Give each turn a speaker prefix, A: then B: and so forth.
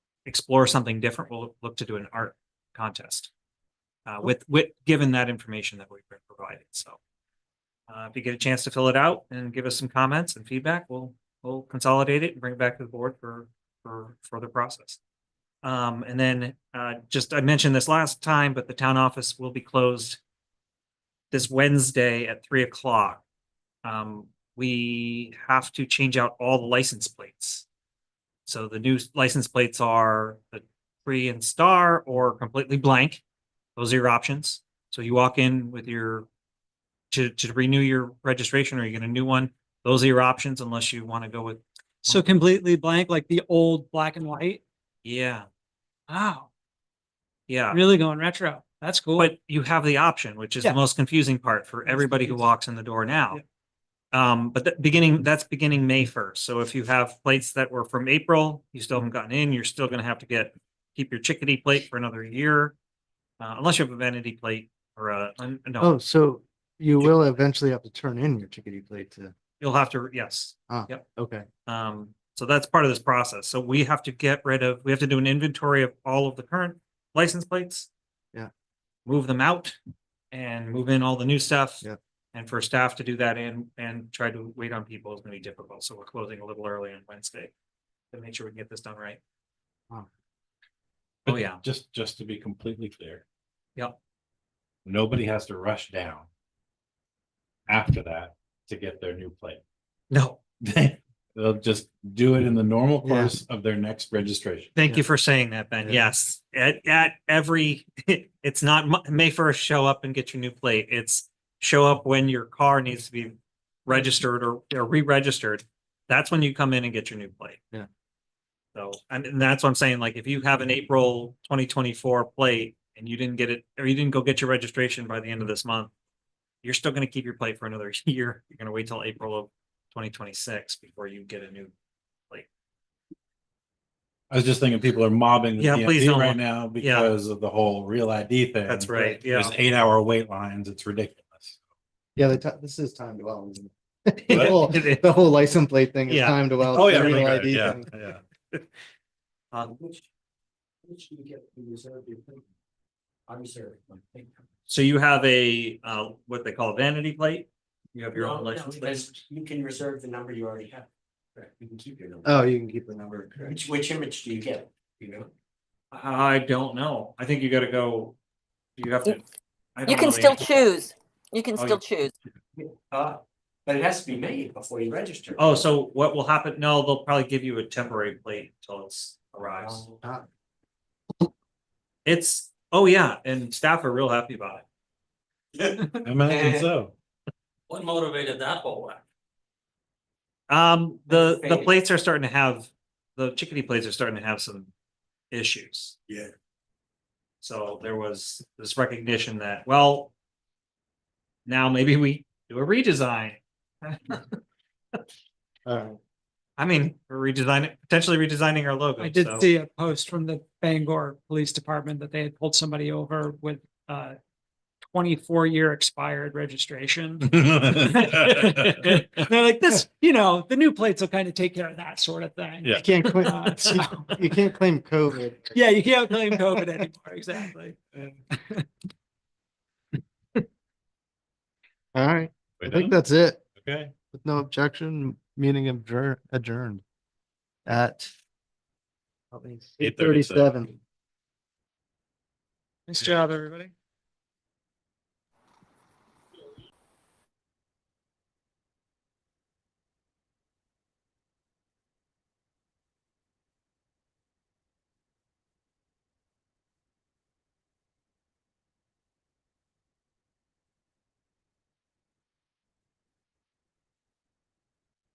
A: explore something different, we'll look to do an art contest. Uh, with, with, given that information that we've been provided, so. Uh, if you get a chance to fill it out and give us some comments and feedback, we'll, we'll consolidate it and bring it back to the board for, for further process. Um, and then, uh, just, I mentioned this last time, but the town office will be closed this Wednesday at three o'clock. Um, we have to change out all the license plates. So the new license plates are the tree and star or completely blank. Those are your options. So you walk in with your to, to renew your registration or you get a new one. Those are your options unless you want to go with,
B: So completely blank, like the old black and white.
A: yeah,
B: Wow,
A: yeah.
B: really going retro. That's cool.
A: But you have the option, which is the
B: Yeah.
A: most confusing part for everybody who
B: confusing.
A: walks in the door now. Um, but that beginning, that's beginning May first. So if you have plates that were from April, you still haven't gotten in, you're still gonna have to get, keep your chickadee plate for another year. Uh, unless you have a vanity plate or a, un- no,
C: Oh, so you
A: Chick-
C: will eventually have to turn in your chickadee plate to,
A: you'll have to, yes.
C: okay.
A: Um, so that's part of this process. So we have to get rid of, we have to do an inventory of all of the current license plates.
C: Yeah.
A: Move them out and move in all the new stuff.
C: Yeah.
A: And for staff to do that and, and try to wait on people is gonna be difficult. So we're closing a little early on Wednesday to make sure we can get this done right.
C: Wow.
A: Oh, yeah.
D: Just, just to be completely clear.
A: Yep.
D: Nobody has to rush down. After that to get their new
A: No,
D: plate. They'll just do it in the normal
C: Yeah.
D: course of their next registration.
A: thank you for saying that, Ben.
C: Yeah.
A: Yes, at, at every, it's not Mo- May first, show up and get your new plate. It's show up when your car needs to be registered or, or re-registered. That's when you come in and get your new plate.
C: Yeah.
A: So, and, and that's what I'm saying, like, if you have an April twenty twenty-four plate and you didn't get it, or you didn't go get your registration by the end of this month, you're still gonna keep your plate for another year. You're gonna wait till April of twenty twenty-six before you get a new
D: I was just thinking people are mobbing the
A: Yeah, please
D: DMV
A: don't.
D: right now because of the whole real ID thing.
A: That's right,
D: There's
A: yeah.
D: eight hour wait lines. It's ridiculous.
C: Yeah, the, ti- this is time to well. isn't it? The
D: What?
C: whole-
A: It is.
C: the whole license plate thing is
A: Yeah.
C: time to well.
D: Oh, yeah.
C: the
D: we
C: real
D: got it.
C: ID
D: Yeah,
C: thing.
D: yeah.
A: Uh,
E: Which, which you get to reserve your thing. I reserve my thing.
A: So you have a, uh, what they call a vanity plate? You have your
E: No,
A: own
E: no,
A: license plate?
E: because You can reserve the number you already have. Correct. You can keep your number.
C: Oh, you can keep the number.
E: Which, which image do you get, you know?
A: I don't know. I think you gotta go, you have to. I
F: You
A: don't know
F: can
A: the
F: still
A: answer.
F: choose. You can
A: Oh,
F: still
A: you-
F: choose.
E: Uh, but it has to be made before you register.
A: Oh, so what will happen? No, they'll probably give you a temporary plate until it's arrives.
E: Um,
C: Ah,
A: It's, oh yeah, and staff are real happy about it.
D: Imagine so.
E: What motivated that whole act?
A: Um, the, the
E: Right.
A: plates are starting to have, the chickadee plates are starting to have some issues.
E: Yeah.
A: So there was this recognition that, well. Now maybe we do a redesign.
C: All right.
A: I mean, we're redesigning, potentially redesigning our logo.
B: I did
A: so-
B: see a post from the Bangor Police Department that they had pulled somebody over with uh twenty-four year expired registration. They're like, this, you know, the new plates will kind of take care of that sort of thing.
D: Yeah.
C: You can't claim,
B: Uh, so-
C: you can't claim COVID.
B: Yeah, you can't claim COVID anymore, exactly.
C: All right.
D: We're
C: I think
D: done?
C: that's it.
D: Okay.
C: With no objection, meeting adjour- adjourned at eight
D: 8:37.
C: thirty-seven.
B: Nice job, everybody.